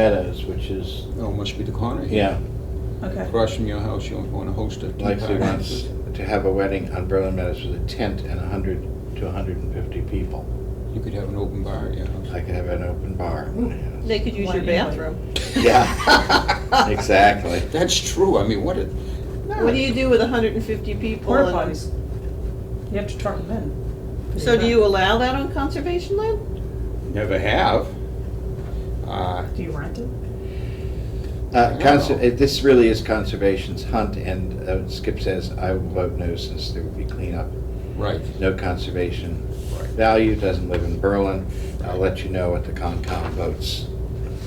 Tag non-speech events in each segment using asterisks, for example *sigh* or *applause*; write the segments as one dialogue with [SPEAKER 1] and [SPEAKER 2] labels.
[SPEAKER 1] Meadows, which is,
[SPEAKER 2] Oh, it must be the corner here.
[SPEAKER 1] yeah,
[SPEAKER 3] Okay.
[SPEAKER 2] Across from your house, you want to host a tea
[SPEAKER 1] like
[SPEAKER 2] party.
[SPEAKER 1] they want s- to have a wedding on Berlin Meadows with a tent and hundred to hundred and fifty people.
[SPEAKER 2] You could have an open bar at your house.
[SPEAKER 1] I could have an open bar. at my house.
[SPEAKER 4] They could use
[SPEAKER 3] One
[SPEAKER 4] your
[SPEAKER 3] anyway.
[SPEAKER 4] bathroom.
[SPEAKER 1] Yeah, *laughs* exactly.
[SPEAKER 2] That's true, I mean, what a,
[SPEAKER 4] What do you do with hundred and fifty people?
[SPEAKER 3] Porta
[SPEAKER 4] and-
[SPEAKER 3] potties. You have to truck them in.
[SPEAKER 4] So do you allow that on conservation land?
[SPEAKER 2] never have. Uh,
[SPEAKER 3] Do you rent it?
[SPEAKER 1] Uh, cons-
[SPEAKER 2] Wow.
[SPEAKER 1] uh, This really is conservation's hunt, and uh, Skip says, I will vote no since there will be cleanup.
[SPEAKER 2] right,
[SPEAKER 1] No conservation
[SPEAKER 2] Right.
[SPEAKER 1] value, doesn't live in Berlin. I'll let you know what the Concom votes.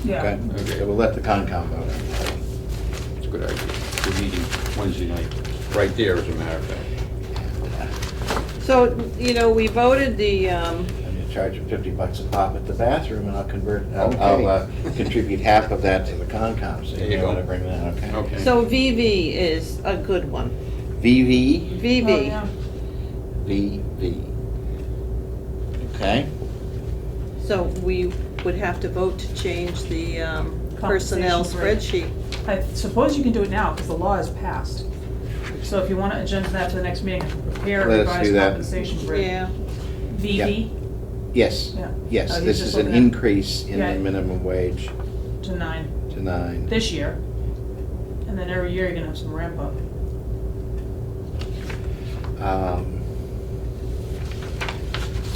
[SPEAKER 1] Okay?
[SPEAKER 2] Okay.
[SPEAKER 1] So we'll let the Concom vote. on it.
[SPEAKER 2] it's a good idea. We're meeting Wednesday night, right there, as a matter of fact.
[SPEAKER 1] uh,
[SPEAKER 4] So, you know, we voted the, um,
[SPEAKER 1] I'm gonna charge them fifty bucks a pop at the bathroom, and I'll convert, I'll, I'll uh,
[SPEAKER 2] Okay.
[SPEAKER 1] contribute half of that to the Concom, so
[SPEAKER 2] There
[SPEAKER 1] you
[SPEAKER 2] you
[SPEAKER 1] know
[SPEAKER 2] go.
[SPEAKER 1] to bring that, okay?
[SPEAKER 2] Okay.
[SPEAKER 4] so VV is a good one.
[SPEAKER 1] VV,
[SPEAKER 3] Oh,
[SPEAKER 4] VV.
[SPEAKER 3] yeah.
[SPEAKER 1] VV. Okay?
[SPEAKER 4] So we would have to vote to change the um, personnel
[SPEAKER 3] Compensation
[SPEAKER 4] spreadsheet.
[SPEAKER 3] I suppose you can do it now because the law is passed. So if you want to agenda that to the next meeting, prepare
[SPEAKER 1] Let us do
[SPEAKER 3] revised
[SPEAKER 1] that.
[SPEAKER 3] compensation rate.
[SPEAKER 4] Yeah,
[SPEAKER 3] VV
[SPEAKER 1] Yes,
[SPEAKER 3] Yeah. Oh,
[SPEAKER 1] yes,
[SPEAKER 3] he's
[SPEAKER 1] this
[SPEAKER 3] just
[SPEAKER 1] is an
[SPEAKER 3] looking at-
[SPEAKER 1] increase in
[SPEAKER 3] Yeah.
[SPEAKER 1] the minimum wage
[SPEAKER 3] to nine
[SPEAKER 1] to nine.
[SPEAKER 3] this year. And then every year you're gonna have some ramp up.
[SPEAKER 1] Um,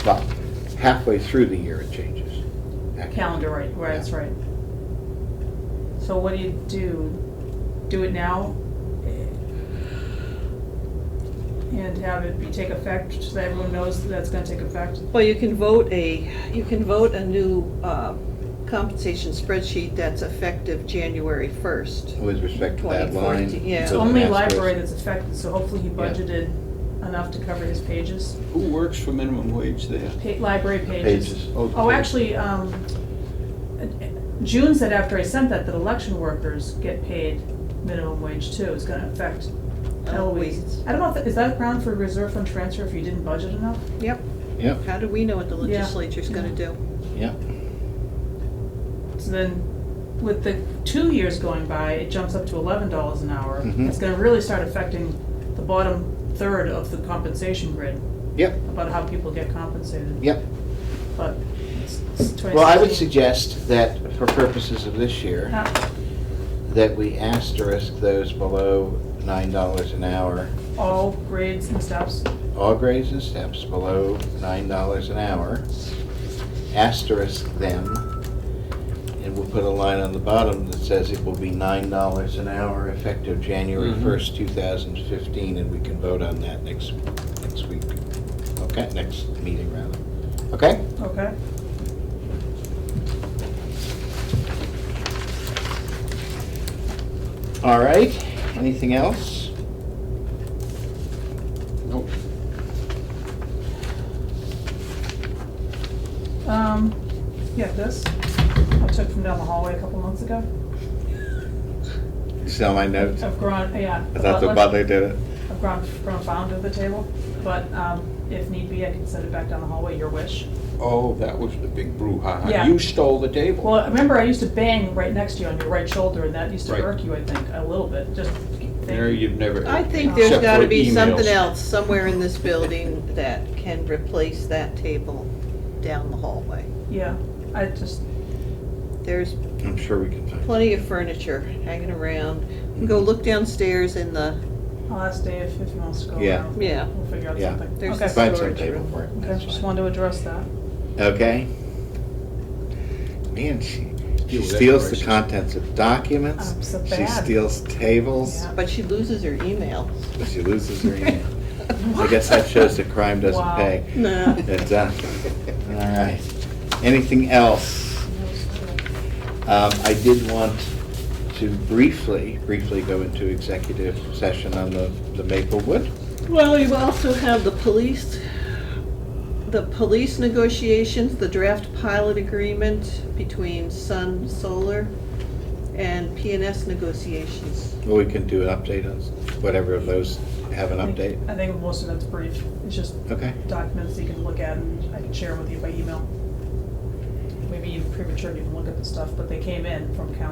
[SPEAKER 1] But halfway through the year it changes. Actually.
[SPEAKER 3] Calendar, right, right, that's
[SPEAKER 1] Yeah.
[SPEAKER 3] right. So what do you do? Do it now? And have it be, take effect, so that everyone knows that it's gonna take effect?
[SPEAKER 4] well, you can vote a, you can vote a new uh, compensation spreadsheet that's effective January first.
[SPEAKER 1] With respect to that line.
[SPEAKER 4] 2014, yeah.
[SPEAKER 1] it
[SPEAKER 3] It's
[SPEAKER 1] doesn't
[SPEAKER 3] only
[SPEAKER 1] ask us-
[SPEAKER 3] library that's affected, so hopefully he budgeted enough to cover his pages,
[SPEAKER 2] Who works for minimum wage there?
[SPEAKER 3] pa- library pages.
[SPEAKER 1] Pages.
[SPEAKER 3] Oh, actually, um, June said after I sent that, that election workers get paid minimum wage too, it's gonna affect Eloise.
[SPEAKER 4] Eloise.
[SPEAKER 3] I don't know, if that- is that ground for reserve fund transfer if you didn't budget enough?
[SPEAKER 4] Yep,
[SPEAKER 1] Yep,
[SPEAKER 4] how do we know what the
[SPEAKER 3] Yeah.
[SPEAKER 4] legislature's gonna do?
[SPEAKER 1] yep.
[SPEAKER 3] So then, with the two years going by, it jumps up to eleven dollars an hour.
[SPEAKER 1] Mhm.
[SPEAKER 3] It's gonna really start affecting the bottom third of the compensation grid,
[SPEAKER 1] Yep,
[SPEAKER 3] about how people get compensated.
[SPEAKER 1] yep.
[SPEAKER 3] But it's it's
[SPEAKER 1] Well, I would
[SPEAKER 3] 2016.
[SPEAKER 1] suggest that for purposes of this year,
[SPEAKER 3] Not
[SPEAKER 1] that we asterisk those below nine dollars an hour.
[SPEAKER 3] All grades and steps,
[SPEAKER 1] All grades and steps below nine dollars an hour. Asterisk them. And we'll put a line on the bottom that says it will be nine dollars an hour effective January
[SPEAKER 2] Mhm.
[SPEAKER 1] first, two thousand fifteen, and we can vote on that next, next week. Okay, next meeting rather. Okay?
[SPEAKER 3] okay?
[SPEAKER 1] All right. Anything else?
[SPEAKER 2] Nope.
[SPEAKER 3] Um, yeah, this, I took from down the hallway a couple months ago,
[SPEAKER 1] Sell my notes.
[SPEAKER 3] of grown, yeah.
[SPEAKER 1] I thought the
[SPEAKER 3] butler-
[SPEAKER 1] butler did it.
[SPEAKER 3] I've grown, grown fond of the table, but um, if need be, I can send it back down the hallway, your wish.
[SPEAKER 2] Oh, that was the big brouhaha.
[SPEAKER 3] Yeah.
[SPEAKER 2] You stole the table.
[SPEAKER 3] Well, remember, I used to bang right next to you on your right shoulder, and that used to
[SPEAKER 2] Right.
[SPEAKER 3] irk you, I think, a little bit, just. thank
[SPEAKER 2] Mary, you've never.
[SPEAKER 4] I think there's
[SPEAKER 2] Except
[SPEAKER 4] gotta
[SPEAKER 2] for
[SPEAKER 4] be something
[SPEAKER 2] emails.
[SPEAKER 4] else somewhere in this building that can replace that table down the hallway.
[SPEAKER 3] Yeah, I just,
[SPEAKER 4] There's
[SPEAKER 1] I'm sure we can find.
[SPEAKER 4] plenty of furniture hanging around. Go look downstairs in the,
[SPEAKER 3] I'll ask Dave if he wants to go
[SPEAKER 1] Yeah.
[SPEAKER 3] around.
[SPEAKER 4] Yeah.
[SPEAKER 3] We'll figure out
[SPEAKER 1] Yeah.
[SPEAKER 3] something.
[SPEAKER 4] There's
[SPEAKER 3] Okay.
[SPEAKER 4] the
[SPEAKER 1] Find some
[SPEAKER 4] storage
[SPEAKER 1] table
[SPEAKER 4] room.
[SPEAKER 1] for it.
[SPEAKER 3] Okay,
[SPEAKER 1] That's
[SPEAKER 3] just
[SPEAKER 1] fine.
[SPEAKER 3] wanted to address that.
[SPEAKER 1] Okay? Man, she she
[SPEAKER 2] Yeah, well,
[SPEAKER 1] steals the
[SPEAKER 2] that's racist.
[SPEAKER 1] contents of documents.
[SPEAKER 3] I'm so
[SPEAKER 1] She
[SPEAKER 3] bad.
[SPEAKER 1] steals tables.
[SPEAKER 3] Yeah.
[SPEAKER 4] but she loses her email.
[SPEAKER 1] She *laughs* loses
[SPEAKER 3] *laughs*
[SPEAKER 1] her
[SPEAKER 4] *laughs*
[SPEAKER 1] email. I guess that shows that crime doesn't
[SPEAKER 3] Wow.
[SPEAKER 1] pay.
[SPEAKER 4] No.
[SPEAKER 1] But, uh, all right. Anything else? Um, I did want to briefly, briefly go into executive session on the the Maplewood.
[SPEAKER 4] Well, you also have the police, the police negotiations, the draft pilot agreement between Sun Solar and PNS negotiations.
[SPEAKER 1] Well, we can do an update on whatever of those have an
[SPEAKER 3] I think-
[SPEAKER 1] update.
[SPEAKER 3] I think most of that's brief, it's just
[SPEAKER 1] Okay.
[SPEAKER 3] documents you can look at, and I can share with you by email. We maybe premature to even look at the stuff, but they came in from council